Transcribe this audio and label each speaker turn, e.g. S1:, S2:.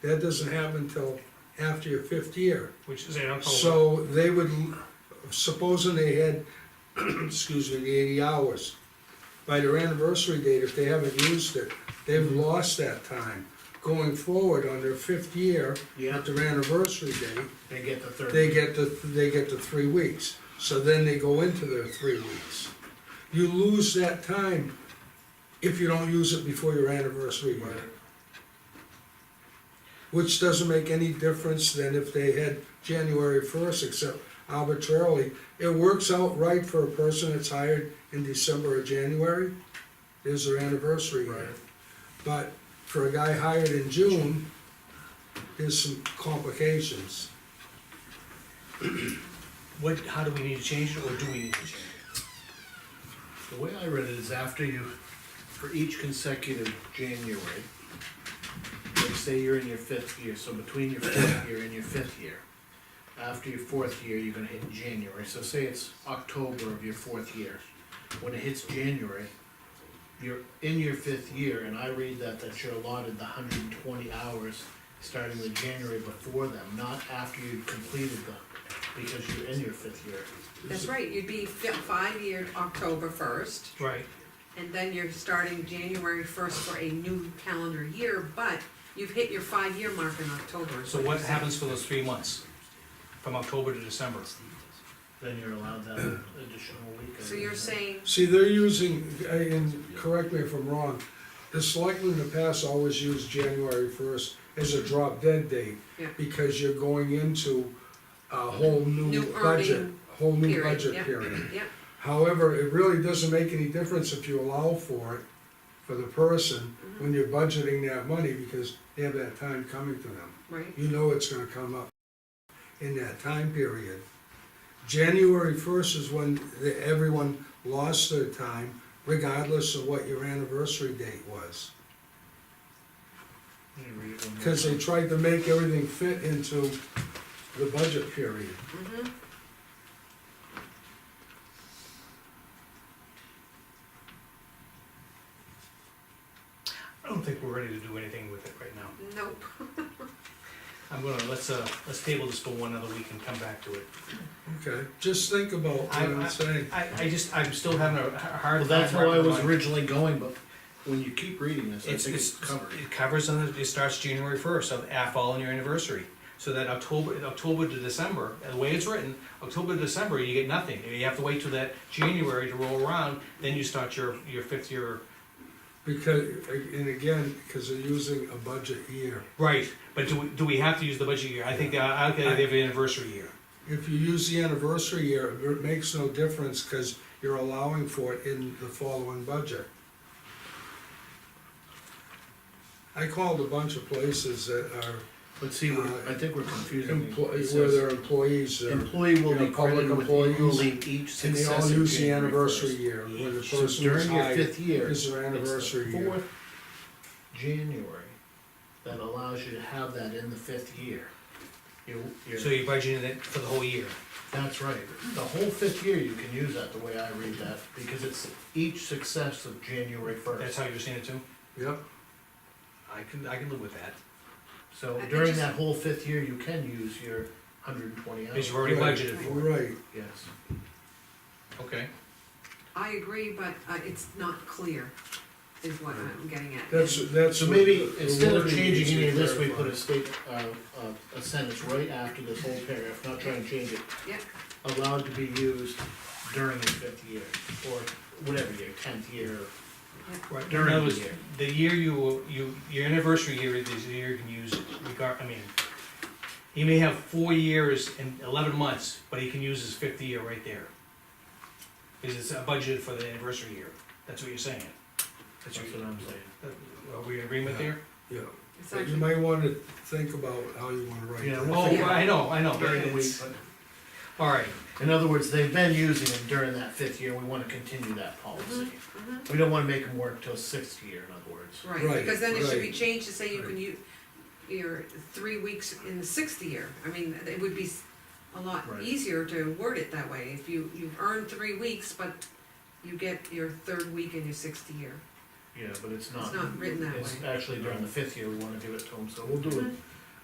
S1: That doesn't happen until after your fifth year.
S2: which is in
S3: Oh.
S2: October.
S1: So they would, supposing they had, excuse me, the eighty hours, by their anniversary date, if they haven't used it,
S3: Mm-hmm.
S1: they've lost that time. Going forward on their fifth year,
S3: Yeah,
S1: at their anniversary date,
S3: they get the third.
S1: they get the, they get the three weeks. So then they go into their three weeks. You lose that time if you don't use it before your anniversary
S3: Right.
S1: year. Which doesn't make any difference than if they had January first, except arbitrarily. It works out right for a person that's hired in December or January, is their anniversary year.
S3: Right.
S1: But for a guy hired in June, there's some complications.
S2: What, how do we need to change it, or do we need to change it?
S3: The way I read it is after you, for each consecutive January, like say you're in your fifth year, so between your fourth year and your fifth year, after your fourth year, you're gonna hit January, so say it's October of your fourth year. When it hits January, you're in your fifth year, and I read that, that you're allotted the hundred and twenty hours starting with January before them, not after you've completed them, because you're in your fifth year.
S4: That's right, you'd be fi- five year October first,
S2: Right,
S4: and then you're starting January first for a new calendar year, but you've hit your five-year mark in October. is
S2: so what
S4: you're saying.
S2: happens for those three months, from October to December?
S3: Then you're allowed that additional week. I
S4: So you're
S3: believe.
S4: saying,
S1: See, they're using, I- and correct me if I'm wrong, the selectmen in the past always used January first as a drop dead date.
S4: Yeah.
S1: Because you're going into a whole new
S4: New
S1: budget,
S4: earning
S1: whole new
S4: period,
S1: budget
S4: yeah.
S1: period.
S4: yeah,
S1: However, it really doesn't make any difference if you allow for it, for the person,
S4: Mm-hmm.
S1: when you're budgeting that money, because they have that time coming to them
S4: right,
S1: you know it's gonna come up in that time period. January first is when the- everyone lost their time, regardless of what your anniversary date was.
S3: Let me read it one more
S1: Cause they
S3: time.
S1: tried to make everything fit into the budget period.
S4: mm-hmm,
S2: I don't think we're ready to do anything with it right now.
S4: nope,
S2: I'm gonna, let's, uh, let's table this for one other week and come back to it.
S1: Okay, just think about what I'm saying.
S2: I, I just, I'm still having a h- hard
S3: Well,
S2: time.
S3: that's where I was
S2: wrapping my-
S3: originally going, but when you keep reading this, I
S2: It's,
S3: think it's
S2: it's,
S3: covered.
S2: it covers, and it starts January first, of af all on your anniversary. So that October, October to December, the way it's written, October to December, you get nothing. You have to wait till that January to roll around, then you start your, your fifth year.
S1: Because, and again, because they're using a budget year.
S2: Right, but do, we- do we have to use the budget year? I think, uh, I, I think they have an anniversary year.
S1: If you use the anniversary year, it makes no difference, cause you're allowing for it in the following budget. I called a bunch of places that are
S3: Let's see, we're- I think we're confusing. it. It
S1: employees, where
S3: says,
S1: their employees, are- and
S3: Employee will
S1: you know,
S3: be
S1: public
S3: credited with
S1: employees,
S3: only each
S1: they all
S3: successive
S1: use the
S3: January
S1: anniversary
S3: first.
S1: year, when the
S3: So
S1: person was
S3: during your
S1: hired,
S3: fifth year.
S1: is their
S3: it's the
S1: anniversary year.
S3: fourth January, that allows you to have that in the fifth year. You,
S2: So
S3: you,
S2: you're budgeting it for the whole year.
S3: that's right, the whole fifth year you can use that, the way I read that, because it's each successive January first.
S2: That's how you're seeing it too?
S1: Yep,
S2: I can, I can live with that,
S3: So
S4: I- I
S3: during
S4: just-
S3: that whole fifth year, you can use your hundred and twenty
S2: because
S3: hours.
S2: you've already
S1: Right.
S2: budgeted for it.
S1: right,
S3: Yes,
S2: Okay.
S4: I agree, but, uh, it's not clear, is what I'm getting at.
S1: that's, that's.
S3: so maybe
S1: what the- the
S3: instead of
S1: wording
S3: changing any
S1: needs
S3: of
S1: to
S3: this, we put
S1: clarify.
S3: a state, uh, a, a sentence right after this whole paragraph, not trying to change it.
S4: Yeah.
S3: Allowed to be used during the fifth year, or whatever year, tenth year,
S2: Right,
S3: During
S2: in other
S3: the
S2: words,
S3: year.
S2: The year you, you, your anniversary year is the year you can use it, regard, I mean, he may have four years and eleven months, but he can use his fifth year right there. Because it's a budget for the anniversary year, that's what you're saying.
S3: that's
S2: That's
S3: what
S2: what
S3: I'm saying.
S2: you're, are we in agreement there?
S1: Yeah,
S4: It's
S1: but you
S4: actually,
S1: might wanna think about how you wanna write
S3: Yeah,
S1: that.
S3: well-
S2: Oh, I know, I know,
S3: During the week,
S2: all right,
S3: but in other words, they've been using them during that fifth year, we wanna continue
S4: Mm-hmm,
S3: that policy. We don't wanna make them work till sixth year, in other words.
S4: right,
S1: Right,
S4: because then it should be
S1: right,
S4: changed to say you
S1: right.
S4: can use your three weeks in the sixth year. I mean, it would be s- a lot
S3: Right.
S4: easier to word it that way, if you, you've earned three weeks, but you get your third week in your sixth year.
S3: Yeah, but it's not.
S4: It's not written that
S3: It's
S4: way.
S3: actually during the fifth year, we wanna give it to them, so we'll do it